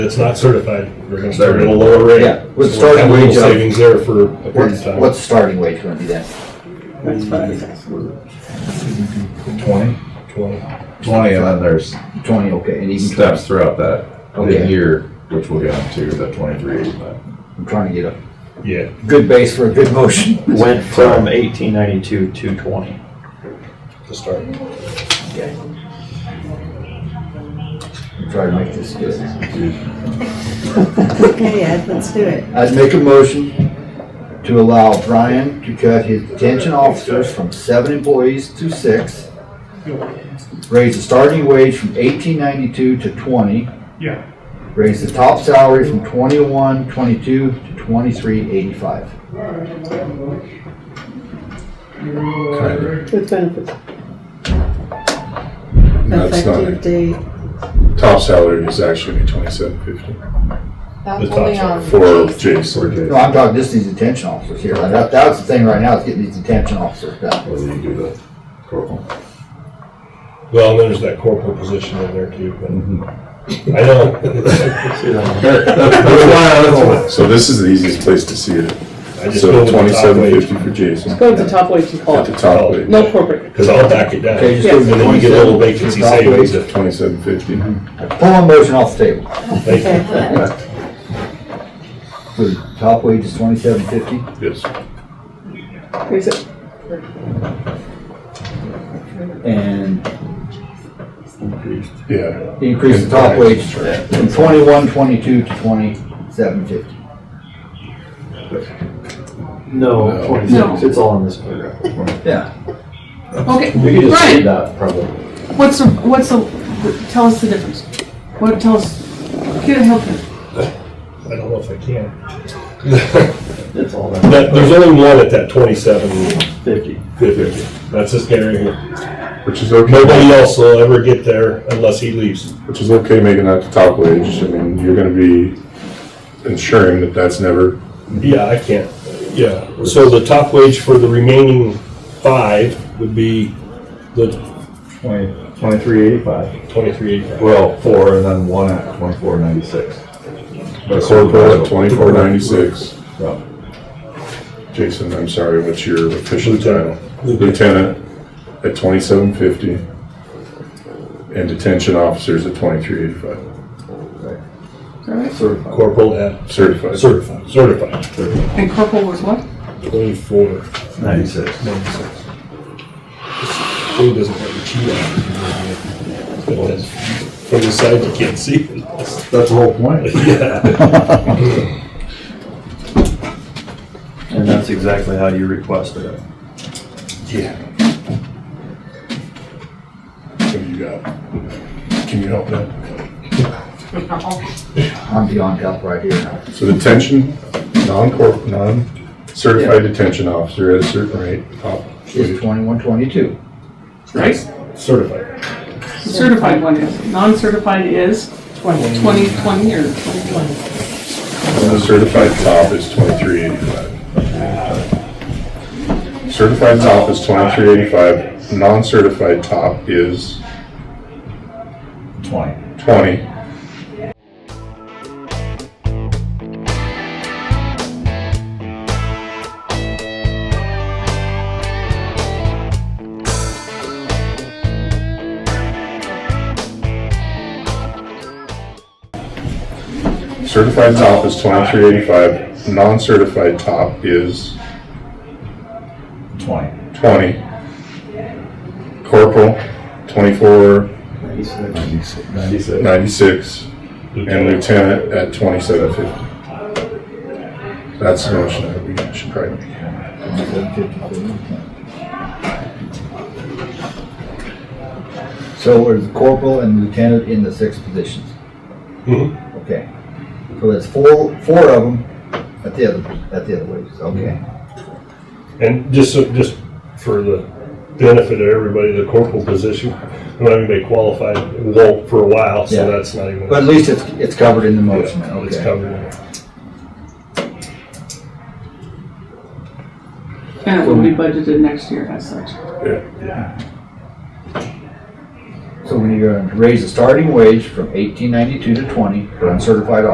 It's not certified, we're gonna start They're- at a lower rate. yeah, with So we'll starting have a little wage of- Savings there for a period What's, of time. what's the starting wage gonna be then? That's fine. Twenty? Twenty. Twenty, and then there's Twenty, okay, and even twenty, steps throughout that Okay. year, which we'll get into, the twenty-three eighty-five. I'm trying to get a Yeah, good base for a good motion. Went from eighteen ninety-two to twenty. to start. Okay. Try to make this good. Okay, Ed, let's do it. I'd make a motion to allow Brian to cut his detention officers from seven employees to six. Raise the starting wage from eighteen ninety-two to twenty. Yeah. Raise the top salary from twenty-one, twenty-two to twenty-three, eighty-five. With benefits. That's not Effective it. date. Top salary is actually gonna be twenty-seven fifty The That's top only side. on. for Jason. Or No, I'm talking just these detention officers here. That, that's the thing right now, is getting these detention officers done. do you do the corporal? Well, and then there's that corporal position in there too, but Mm-hmm. I know. Oh, So this is the easiest place to see it. I just go So with the top Oh. twenty-seven wage. fifty for Jason Go to the top wage and call at the it. top wage. No corporate. Cause I'll back it down. Okay, just go And to then you get a little 27 vacancy for top savings wage. if, Twenty-seven fifty. Mm-hmm. Pull a motion off the table. thank you. So the top wage is twenty-seven fifty. Yes. Is it- and Yeah. increase the top wage from twenty-one, twenty-two to twenty-seven fifty. No, No. twenty-six, it's all in this paragraph. Yeah. Okay, We could just read Brian, that probably. what's the, what's the, tell us the difference. What, tell us, get a help. I don't know if I can. It's all in That, there's only one at that twenty-seven fifty. fifty. That's this guy right here. Which is okay, Nobody else will ever get there unless he leaves. which is okay making that the top wage. I mean, you're gonna be ensuring that that's never, Yeah, I can't, yeah. So the top wage for the remaining five would be the Twenty, twenty-three eighty-five. twenty-three eighty-five. Well, four, and then one at twenty-four ninety-six. corporal at twenty-four ninety-six. Yeah. Jason, I'm sorry, what's your official title? Lieutenant. Lieutenant at twenty-seven fifty. And detention officers at twenty-three eighty-five, Certified. Corporal at certified. certified, certified, And corporal was what? twenty-four. Ninety-six. Thing doesn't let you cheat on it. But that's- From the side, you can't see. it. That's the whole point. Yeah, And that's exactly how you requested it. yeah. What do you got? Can you help that? I'm beyond help right here now. So detention, non-corp, non-certified detention officer at a certain rate, top It's wage. twenty-one, twenty-two. Right? Certified. Certified one is. Non-certified is twenty, twenty or twenty twenty. And the certified top is twenty-three eighty-five. Certified top is twenty-three eighty-five, non-certified top is Twenty. twenty. Certified top is twenty-three eighty-five, non-certified top is Twenty. twenty. Corporal, twenty-four Ninety-six. ninety-six, and lieutenant at twenty-seven fifty. That's the motion that we should probably make. So there's the corporal and lieutenant in the six positions. Mhm. Okay. So that's four, four of them at the other, at the other wages, okay. And just, so- just for the benefit of everybody, the corporal position, I mean, they qualified, it won't for a while, so Yeah. that's not even. But at least it's, it's covered in the Yeah, motion, It's okay. covered. in there. And it will be budgeted next year as such. Yeah. So we need to raise the starting wage from eighteen ninety-two to twenty for uncertified